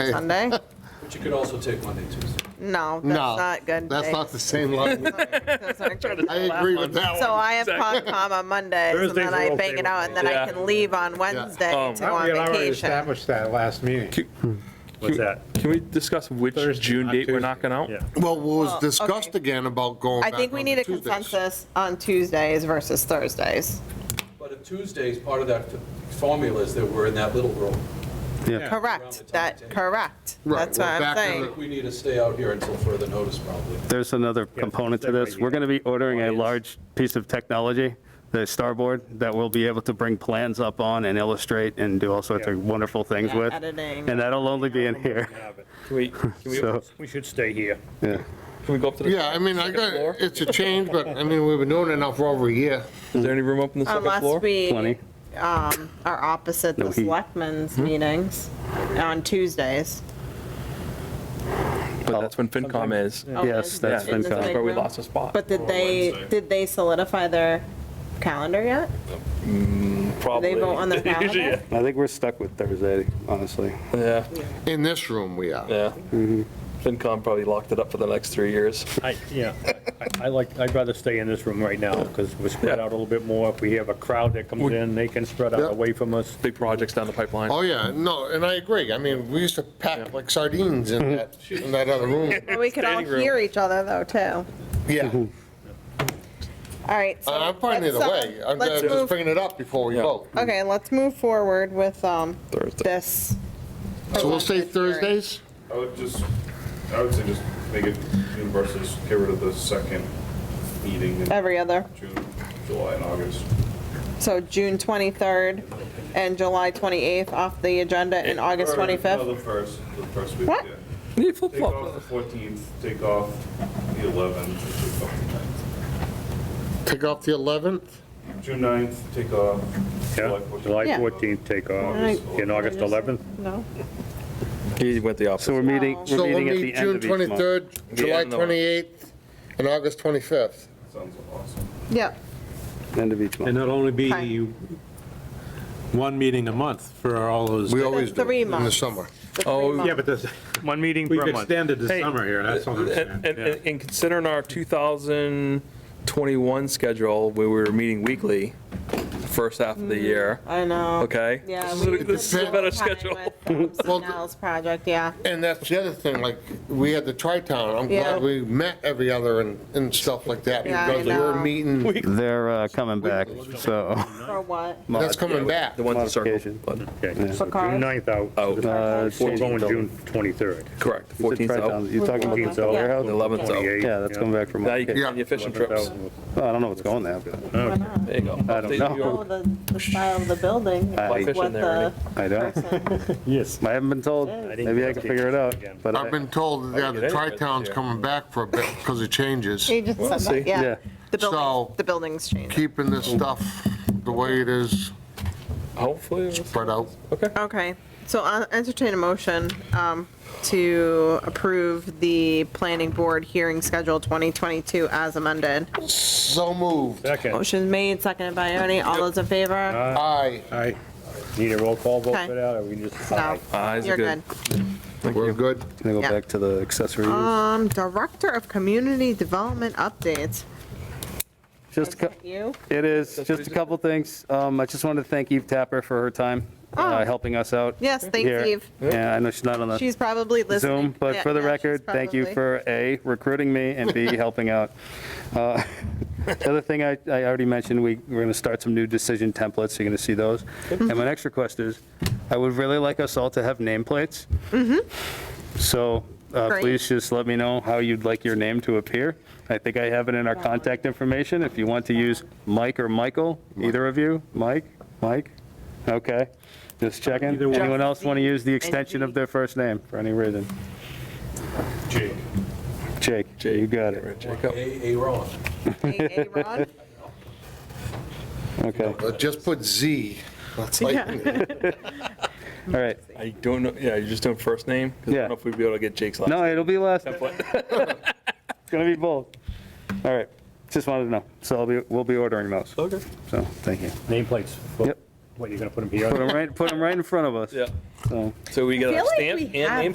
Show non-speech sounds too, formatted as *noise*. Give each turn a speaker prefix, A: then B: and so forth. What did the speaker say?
A: *laughs*
B: Sunday?
C: But you could also take Monday, Tuesday.
B: No, that's
A: No,
B: not good.
A: That's
B: day.
A: not the same line.
B: *laughs* That's not good.
A: I agree with that
B: So
A: one.
B: I have Concom on Monday, and
D: Thursdays
B: then
D: are
B: I
D: okay
B: bang it
D: with
B: out,
D: me.
B: and then I
E: Yeah.
B: can leave on Wednesday
E: Um,
B: to go on
D: We had already
B: vacation.
D: established that last meeting. What's that?
B: uh,
E: Can we discuss which
D: Thursday,
E: June
D: not
E: date we're
D: Tuesday.
E: knocking out?
D: Yeah.
A: Well, what
B: Well,
A: was discussed
B: Oh, okay.
A: again about going
B: I
A: back
B: think we
A: on
B: need
A: the
B: a
A: Tuesdays.
B: consensus on Tuesdays versus Thursdays.
C: But if Tuesday's part of that f- formula is that we're in that little room. Around the time
B: Correct, that,
C: table.
B: correct.
A: Right,
B: That's
A: we're
B: what I'm
A: back in
C: I
B: saying.
C: think we need to stay out here until further notice, probably.
F: There's another component to this. We're going to be ordering a
D: Audience.
F: large piece of technology, the Starboard, that we'll be able to bring plans up on and illustrate and do all sorts
D: Yeah.
F: of wonderful things
B: Yeah,
F: with.
B: editing.
F: And that'll only be in here.
E: Can we, can we,
F: So,
E: can
D: We should stay here.
F: yeah.
E: we go up to the?
A: Yeah, I mean, I got,
E: floor?
A: it's a change, but I mean, we've been doing it now for over a year.
E: Is there any room up on the second floor?
B: Unless we
F: Plenty.
B: um, are opposite
F: No Hmm?
B: the
F: heat.
B: selectmen's meetings on Tuesdays.
E: But that's when FinCom is. Yeah,
F: Yes, that's
B: In this
F: FinCom.
B: big
E: That's where we
B: room.
E: lost a spot.
B: But did they, did they solidify their calendar yet? Did they vote on their
E: *laughs*
B: calendar?
F: I think we're stuck with Thursday, honestly.
E: Yeah,
A: In this room, we are.
E: yeah. FinCom probably locked it up for the next three years.
D: I, yeah, I like, I'd rather stay in this room right now because we're spread out a little bit more. If we have a crowd that comes in, they can spread
A: Yeah.
D: out away from us.
E: Big projects down the pipeline.
A: Oh, yeah, no, and I agree. I mean, we used to pack like sardines in that, in that other room.
B: Well, We could all
E: Standing room.
B: hear each other though, too.
A: Yeah,
B: All right. so
A: I- I'm fine
B: let's,
A: either
B: uh,
A: way. I'm
B: let's
A: I'm just
B: move-
A: bringing it up before we
E: Yeah.
A: vote.
B: Okay, let's move forward with um,
E: Thursday.
B: this. Oh,
A: So we'll say
B: Presented hearing.
A: Thursdays?
G: I would just, I would say just make it universal, just get rid of the second meeting in
B: Every other,
G: June, July, and August.
B: so June 23rd and July 28th off the agenda and August
G: Or, No,
B: 25th.
G: the first, the first week,
B: What?
G: yeah.
E: Need
G: Take off the fourteenth, take off the eleventh, take off the
A: Take off the 11th?
G: ninth. June ninth, take off
D: Yeah,
G: July fourteenth.
D: July
B: Yeah.
D: 14th take off,
G: August
D: in August 11th.
B: No?
E: He went the
F: So we're
E: opposite.
F: meeting,
B: So
F: we're
A: So we'll
F: meeting at
A: meet
F: the end
A: June
F: of each month.
A: 23rd, July
E: end of the month.
A: 28th, and August 25th.
G: Sounds awesome.
B: Yep.
F: End of each
H: And
F: month.
H: it'll only
B: Okay.
H: be one meeting a month for all those.
A: We always do,
B: three
A: in the
B: months.
A: summer.
B: the three
E: Oh,
H: Yeah,
B: months.
H: but this-
D: One meeting
H: we've
D: per month.
H: extended the
E: Hey, uh,
H: summer here, that's all I'm saying.
E: And, and-
H: yeah.
E: and considering our 2021 schedule, where we were meeting weekly, the first half of the year,
B: I know.
E: okay?
B: Mm-hmm. Yeah.
E: This
B: we
E: is- This is a
B: spent
E: better
B: time
E: schedule.
B: with,
E: *laughs*
B: um,
A: Well,
B: Snell's project, yeah.
A: And that's the other thing, like, we had the tri-town, I'm
B: Yeah.
A: glad we met every other and, and stuff like that,
B: Yeah, I
A: because we were
B: know.
A: meeting,
F: They're uh, coming back, so.
B: For what?
A: that's coming back.
E: The ones in circle.
F: Modification.
E: but-
D: Okay,
B: For
D: so
B: cars?
D: June 9th out,
E: Oh,
F: Uh,
D: we're going
F: change-
D: June 23rd.
E: correct, the
F: You said
E: 14th out.
F: tri-towns. You're talking about the
B: Yeah.
F: cell warehouse?
E: The 11th out.
D: 28th,
F: Yeah, that's coming back from.
E: Now you
F: Well,
E: can plan your fishing trips.
F: I don't know what's going there, but
E: There you go.
F: I don't
E: Update
F: know.
E: New York.
B: Oh, the, the style of the building.
F: I-
B: what
E: Fishing there,
B: the
E: Ernie.
F: I don't.
B: person-
D: Yes.
F: I haven't been told.
B: I
D: didn't
F: Maybe I can
D: get
F: figure it out.
D: again.
F: But
A: I've
F: I-
A: been told, yeah, the
E: get anywhere
A: tri-town's
E: this year.
A: coming back for a bit because of changes,
B: He just said
E: see.
B: that, yeah.
F: Yeah.
B: The
A: So-
B: building, the building's changing.
A: keeping this stuff the way it is,
E: Hopefully. it's-
A: spread out.
E: Okay.
B: Okay, so I'll entertain a motion um, to approve the planning board hearing schedule 2022 as amended.
A: So moved,
D: Second,
B: Motion made, seconded by Ernie. All those in favor?
A: aye,
H: I-
D: need a roll call vote
B: Okay.
D: for that, or we can just?
B: No,
E: Eyes
B: you're
E: are
B: good.
E: good.
A: we're good.
F: Can I go
B: Yeah.
F: back to the accessory use?
B: Um, Director of Community Development Updates.
F: Just, a cou-
B: You?
F: it is, just a couple things. Um, I just wanted to thank Eve Tapper for her time,
B: Oh.
F: uh, helping us out.
B: Yes, thanks,
F: here.
B: Eve.
F: Yeah, I know she's not on the
B: She's probably listening.
F: Zoom, but
B: Yeah,
F: for the
B: yeah, she's
F: record, thank you
B: probably-
F: for A, recruiting me,
B: *laughs*
F: and B, helping out. Uh, The other thing I, I already mentioned, we, we're gonna start some new decision templates, you're gonna see those. And my next request is, I would really like us all to have nameplates. So uh,
B: Mm-hmm. Great.
F: please just let me know how you'd like your name to appear. I think I have it in our contact information, if you want to use Mike or Michael, either of you, Mike, Mike? Okay, just checking.
H: Either one.
F: Anyone else want to use the extension
B: NG.
F: of their first name for any reason?
G: Jake.
F: Jake, you got it.
E: Jacob.
C: A, A Ron.
B: Hey,
F: *laughs*
B: Ron?
F: Okay,
A: Uh, Just put Z, that's like,
F: all right.
E: I don't know, yeah, you're just doing first name? 'Cause I
F: Yeah.
E: don't know if we'd be able to get Jake's last.
F: No, it'll be last, it's
E: name.
F: gonna be both. All right, just wanted to know. So I'll be, we'll be ordering those,
E: Okay.
F: so, thank you.
D: Nameplates.
F: Yep.
D: What, you're gonna put them
F: Put
D: here?
F: them right, put 'em right in front of us,
E: Yeah,
F: so.
E: so we got
B: Feel
E: a
B: like
E: stamp
B: we
E: and
B: have
E: name